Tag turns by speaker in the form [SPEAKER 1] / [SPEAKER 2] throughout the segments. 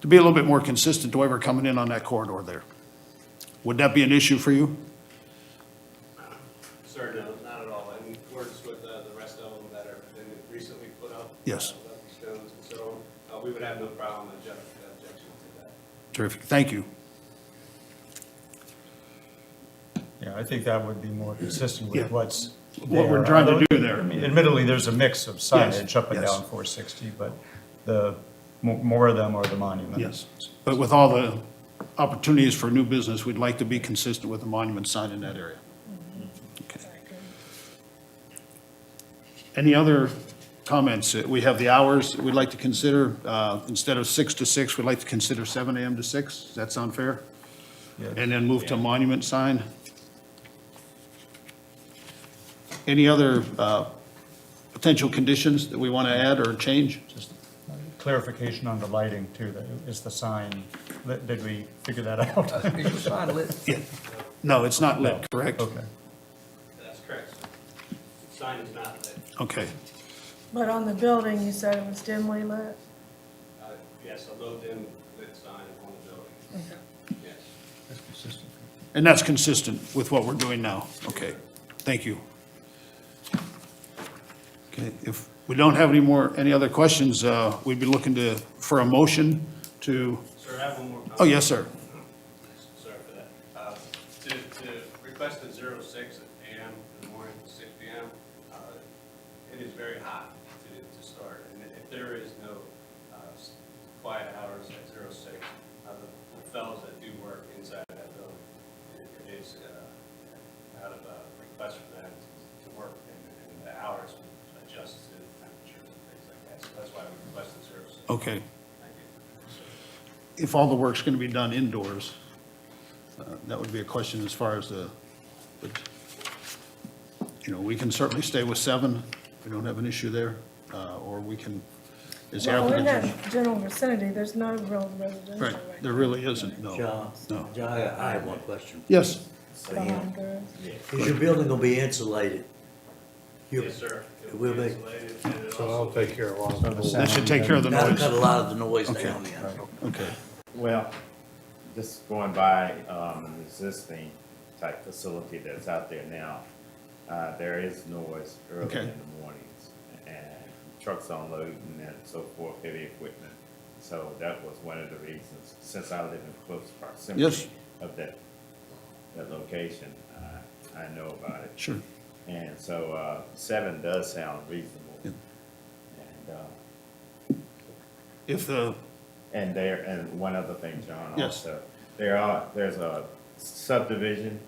[SPEAKER 1] to be a little bit more consistent to whoever coming in on that corridor there. Would that be an issue for you?
[SPEAKER 2] Sir, no, not at all. In accordance with uh, the rest of them that are, that we recently put up.
[SPEAKER 1] Yes.
[SPEAKER 2] uh, Lucky Stones and so on, uh, we would have no problem object- objection to that.
[SPEAKER 1] Terrific, thank you.
[SPEAKER 3] Yeah, I think that would be more consistent
[SPEAKER 1] Yeah.
[SPEAKER 3] with what's there.
[SPEAKER 1] What we're trying to do
[SPEAKER 3] I
[SPEAKER 1] there.
[SPEAKER 3] mean, Admittedly, there's a mix of signage up and
[SPEAKER 1] yes.
[SPEAKER 3] down 460, but the, mo- more of them are the monuments.
[SPEAKER 1] Yes, but with all the opportunities for new business, we'd like to be consistent with the monument sign in that area. Okay. Any other comments? Uh, We have the hours that we'd like to consider. Uh, Instead of six to six, we'd like to consider seven AM to six. Does that sound fair?
[SPEAKER 3] Yeah.
[SPEAKER 1] And then move to monument sign. Any other uh, potential conditions that we want to add or change?
[SPEAKER 3] Just clarification on the lighting too, that is the sign, lit- did we figure that out?
[SPEAKER 4] Is the sign lit?
[SPEAKER 1] No, it's not lit, correct?
[SPEAKER 3] Okay.
[SPEAKER 2] That's correct, sir. Sign is not lit.
[SPEAKER 1] Okay.
[SPEAKER 5] But on the building, you said it was dimly lit?
[SPEAKER 2] Uh, Yes, a low dim lit sign on the building. Yes.
[SPEAKER 1] And that's consistent with what we're doing now? Okay, thank you. Okay, if we don't have any more, any other questions, uh, we'd be looking to, for a motion to,
[SPEAKER 2] Sir, I have one more comment.
[SPEAKER 1] oh, yes, sir.
[SPEAKER 2] Sorry for that. Uh, To, to request at zero six AM in the morning, six PM, uh, it is very hot to, to start. And if there is no uh, s- quiet hours at zero six, uh, the- the fellows that do work inside that building, it- it is uh, out of a request for them to work and and the hours adjust to temperatures and things like that. So that's why we request at zero six.
[SPEAKER 1] Okay,
[SPEAKER 2] Thank you.
[SPEAKER 1] if all the work's going to be done indoors, uh, that would be a question as far as the, but, you know, we can certainly stay with seven, we don't have an issue there, uh, or we can, is the
[SPEAKER 5] Well, in
[SPEAKER 1] applicant?
[SPEAKER 5] that general vicinity, there's no real residential
[SPEAKER 1] Right,
[SPEAKER 5] right
[SPEAKER 1] there really isn't, no.
[SPEAKER 6] John,
[SPEAKER 1] No.
[SPEAKER 6] John, I I have one question.
[SPEAKER 1] Yes,
[SPEAKER 5] behind there.
[SPEAKER 6] Is your building gonna be insulated? Your-
[SPEAKER 2] Yes, sir.
[SPEAKER 6] It will be.
[SPEAKER 2] Insulated and it
[SPEAKER 7] So
[SPEAKER 2] also-
[SPEAKER 7] I'll take care of all of
[SPEAKER 3] So the
[SPEAKER 7] that.
[SPEAKER 1] that should take care of the
[SPEAKER 6] That'll
[SPEAKER 1] noise.
[SPEAKER 6] cut a lot of the noise
[SPEAKER 1] Okay.
[SPEAKER 6] down then.
[SPEAKER 1] Okay.
[SPEAKER 8] Well, just going by um, an existing type facility that's out there now, uh, there is noise early
[SPEAKER 1] Okay.
[SPEAKER 8] in the mornings and trucks unloading and so forth, heavy equipment. So that was one of the reasons, since I live in close
[SPEAKER 1] Yes.
[SPEAKER 8] proximity of that, that location, uh, I, I know about it.
[SPEAKER 1] Sure.
[SPEAKER 8] And so uh, seven does sound reasonable.
[SPEAKER 1] Yeah.
[SPEAKER 8] And, uh,
[SPEAKER 1] If the,
[SPEAKER 8] And there, and one other thing, John,
[SPEAKER 1] Yes.
[SPEAKER 8] also, there are, there's a subdivision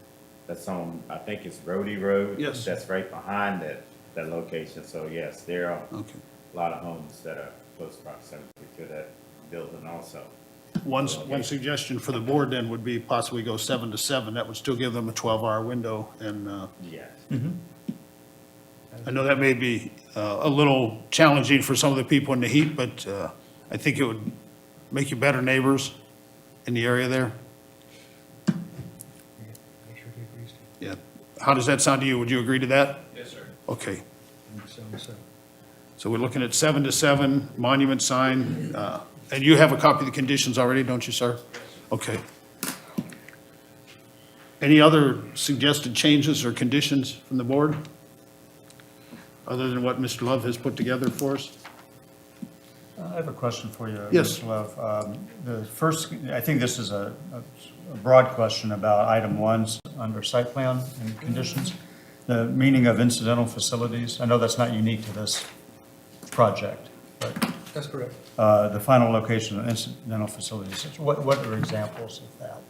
[SPEAKER 8] that's on, I think it's Rhodey Road.
[SPEAKER 1] Yes.
[SPEAKER 8] That's right behind that, that location, so yes, there are
[SPEAKER 1] okay,
[SPEAKER 8] a lot of homes that are close proximity to that building also.
[SPEAKER 1] one, s- one suggestion for the board then would be possibly go seven to seven, that would still give them a twelve-hour window, and, uh,
[SPEAKER 8] Yes,
[SPEAKER 1] I know that may be, uh, a little challenging for some of the people in the heat, but, uh, I think it would make you better neighbors in the area there. Yeah, how does that sound to you? Would you agree to that?
[SPEAKER 2] Yes, sir.
[SPEAKER 1] Okay. So we're looking at seven to seven, monument sign, uh, and you have a copy of the conditions already, don't you, sir? Okay. Any other suggested changes or conditions from the board? Other than what Mr. Love has put together for us?
[SPEAKER 3] Uh, I have a question for you.
[SPEAKER 1] Yes.
[SPEAKER 3] Mr. Love. Um, The first, I think this is a a broad question about item ones under site plan and conditions, the meaning of incidental facilities. I know that's not unique to this project, but
[SPEAKER 4] That's correct.
[SPEAKER 3] uh, the final location of incidental facilities, what what are examples of that?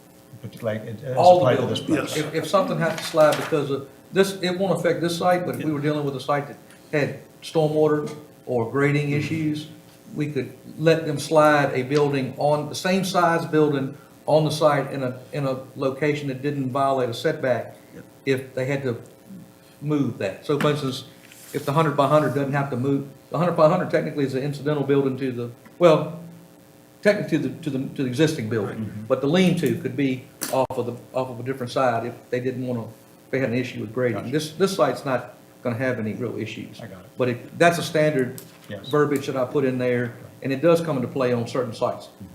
[SPEAKER 3] Like, it- it's
[SPEAKER 4] All the
[SPEAKER 3] applied to this
[SPEAKER 4] buildings.
[SPEAKER 3] project?
[SPEAKER 4] If, if something had to slide because of, this, it won't affect this site, but if we were dealing with a site that had stormwater or grading issues, we could let them slide a building on, the same size building on the site in a, in a location that didn't violate a setback if they had to move that. So for instance, if the hundred by hundred doesn't have to move, the hundred by hundred technically is an incidental building to the, well, technically to the, to the, to the existing
[SPEAKER 3] Mm-hmm.
[SPEAKER 4] building, but the lean-to could be off of the, off of a different side if they didn't want to, if they had an issue with grading. This, this site's not going to have any real issues.
[SPEAKER 3] I got it.
[SPEAKER 4] But it, that's a standard
[SPEAKER 3] Yes.
[SPEAKER 4] verbiage that I put in there, and it does come into play on certain sites.